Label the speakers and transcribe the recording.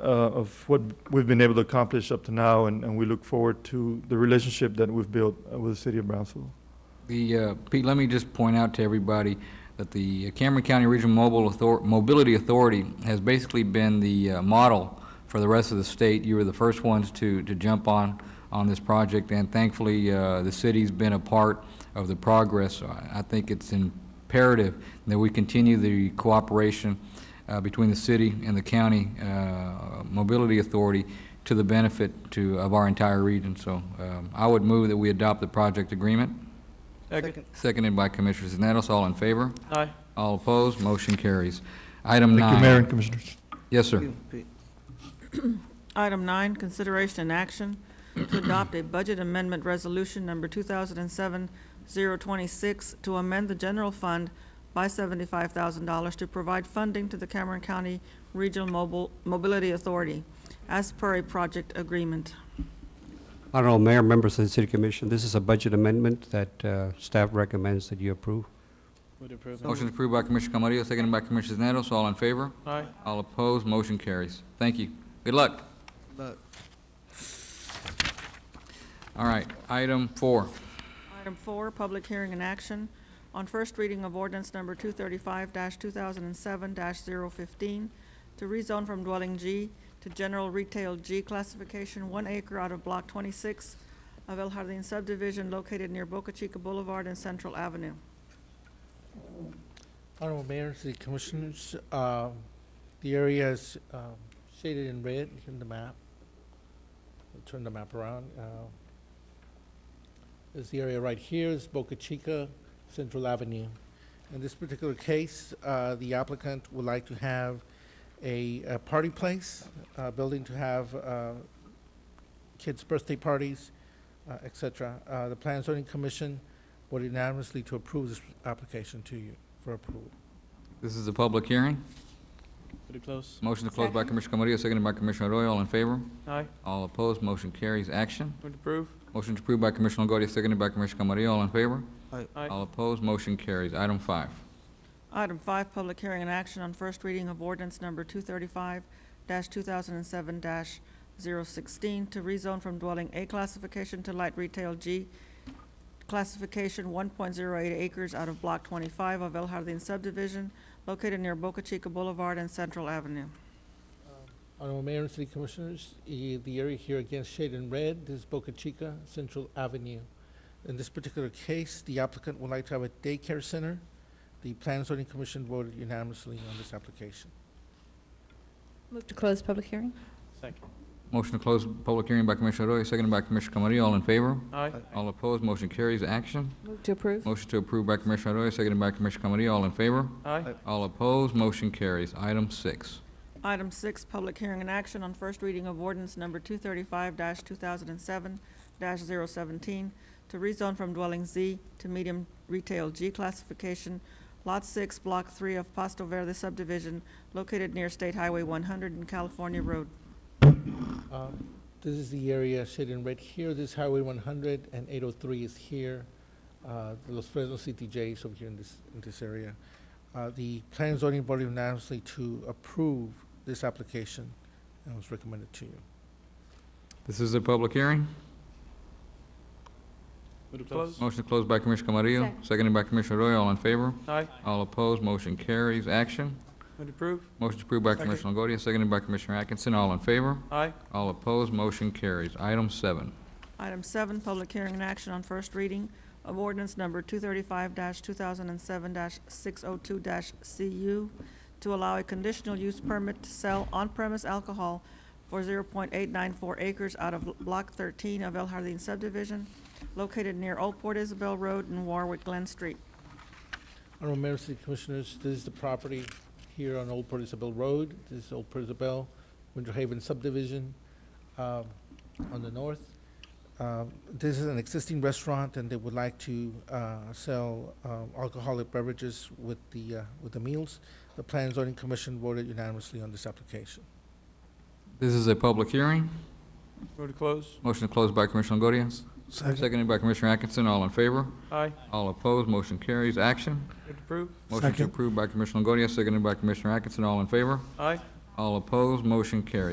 Speaker 1: uh, of what we've been able to accomplish up to now, and, and we look forward to the relationship that we've built uh, with the city of Brownsville.
Speaker 2: The, uh, Pete, let me just point out to everybody that the Cameron County Regional Mobile Author- Mobility Authority has basically been the uh, model for the rest of the state. You were the first ones to, to jump on, on this project, and thankfully, uh, the city's been a part of the progress. So I I think it's imperative that we continue the cooperation uh, between the city and the county uh, mobility authority to the benefit to, of our entire region. So um, I would move that we adopt the project agreement.
Speaker 3: Second.
Speaker 2: Seconded by Commissioner Zanatos, all in favor?
Speaker 3: Aye.
Speaker 2: All opposed, motion carries. Item nine.
Speaker 1: Thank you, Mayor and Commissioners.
Speaker 2: Yes, sir.
Speaker 3: You, Pete.
Speaker 4: Item nine, consideration and action to adopt a budget amendment resolution number 2007-026 to amend the general fund by $75,000 to provide funding to the Cameron County Regional Mobile, Mobility Authority as per a project agreement.
Speaker 5: Honorable Mayor, members of the City Commission, this is a budget amendment that uh, staff recommends that you approve.
Speaker 3: Would approve.
Speaker 2: Motion is approved by Commissioner Camarillo, seconded by Commissioner Zanatos, all in favor?
Speaker 3: Aye.
Speaker 2: All opposed, motion carries. Thank you. Good luck.
Speaker 3: Look,
Speaker 2: All right, item four.
Speaker 4: Item four, public hearing and action on first reading of ordinance number two thirty-five two thousand and seven 15 to rezone from dwelling G to general retail G classification, one acre out of block twenty-six of El Jardín subdivision located near Boca Chica Boulevard and Central Avenue.
Speaker 6: Honorable Mayor, City Commissioners, uh, the area is um, shaded in red in the map. I'll Turn the map around. uh, Is the area right here is Boca Chica, Central Avenue. In this particular case, uh, the applicant would like to have a a party place, a building to have uh, kids' birthday parties, uh, et cetera. Uh, The Plan Zoning Commission voted unanimously to approve this application to you for approval.
Speaker 2: This is a public hearing.
Speaker 3: pretty close.
Speaker 2: Motion to close by Commissioner Camarillo, seconded by Commissioner Arroyo, all in favor?
Speaker 3: Aye.
Speaker 2: All opposed, motion carries. Action.
Speaker 3: Would approve.
Speaker 2: Motion is approved by Commissioner Longoria, seconded by Commissioner Camarillo, all in favor?
Speaker 3: Aye.
Speaker 2: All opposed, motion carries. Item five.
Speaker 4: Item five, public hearing and action on first reading of ordinance number two thirty-five two thousand and seven 16 to rezone from dwelling A classification to light retail G classification one point zero eight acres out of block twenty-five of El Jardín subdivision located near Boca Chica Boulevard and Central Avenue.
Speaker 6: Honorable Mayor and City Commissioners, i- the area here again shaded in red, this is Boca Chica Central Avenue. In this particular case, the applicant would like to have a daycare center. The Plan Zoning Commission voted unanimously on this application.
Speaker 7: Move to close public hearing?
Speaker 3: Second.
Speaker 2: Motion to close public hearing by Commissioner Arroyo, seconded by Commissioner Camarillo, all in favor?
Speaker 3: Aye.
Speaker 2: All opposed, motion carries. Action.
Speaker 7: Move to approve?
Speaker 2: Motion to approve by Commissioner Arroyo, seconded by Commissioner Camarillo. All in favor?
Speaker 3: Aye.
Speaker 2: All opposed, motion carries. Item six.
Speaker 4: Item six, public hearing and action on first reading of ordinance number two thirty-five two thousand and seven 17 to rezone from dwelling Z to medium retail G classification, lot six, block three of Pasto Verde subdivision located near State Highway one hundred and California Road.
Speaker 6: Uh, This is the area shaded in red here, this is Highway 100 and 803 is here. Uh, the Los Fresnos CTJ is over here in this, in this area. Uh, The Plan Zoning voted unanimously to approve this application and was recommended to you.
Speaker 2: This is a public hearing.
Speaker 3: Would approve.
Speaker 2: Motion to close by Commissioner Camarillo,
Speaker 7: Second.
Speaker 2: seconded by Commissioner Arroyo. All in favor?
Speaker 3: Aye.
Speaker 2: All opposed, motion carries. Action.
Speaker 3: Would approve.
Speaker 2: Motion approved by Commissioner Longoria, seconded by Commissioner Atkinson. All in favor?
Speaker 3: Aye.
Speaker 2: All opposed, motion carries. Item seven.
Speaker 4: Item seven, public hearing and action on first reading of ordinance number two thirty-five two thousand and seven six oh two CU to allow a conditional use permit to sell on-premise alcohol for zero point eight nine four acres out of block thirteen of El Jardín subdivision located near Old Port Isabel Road and Warwick Glen Street.
Speaker 6: Honorable Mayor, City Commissioners, this is the property here on Old Port Isabel Road. This is Old Port Isabel, Winter Haven subdivision um, on the north. Um, This is an existing restaurant, and they would like to uh, sell um, alcoholic beverages with the, uh, with the meals. The Plan and Zoning Commission voted unanimously on this application.
Speaker 2: This is a public hearing.
Speaker 3: Move to close.
Speaker 2: Motion to close by Commissioner Longoria, seconded by Commissioner Atkinson. All in favor?
Speaker 3: Aye.
Speaker 2: All opposed, motion carries. Action.
Speaker 3: Would approve.
Speaker 2: Motion to
Speaker 1: Second.
Speaker 2: approve by Commissioner Longoria, seconded by Commissioner Atkinson. All in favor?
Speaker 3: Aye.
Speaker 2: All opposed, motion carries.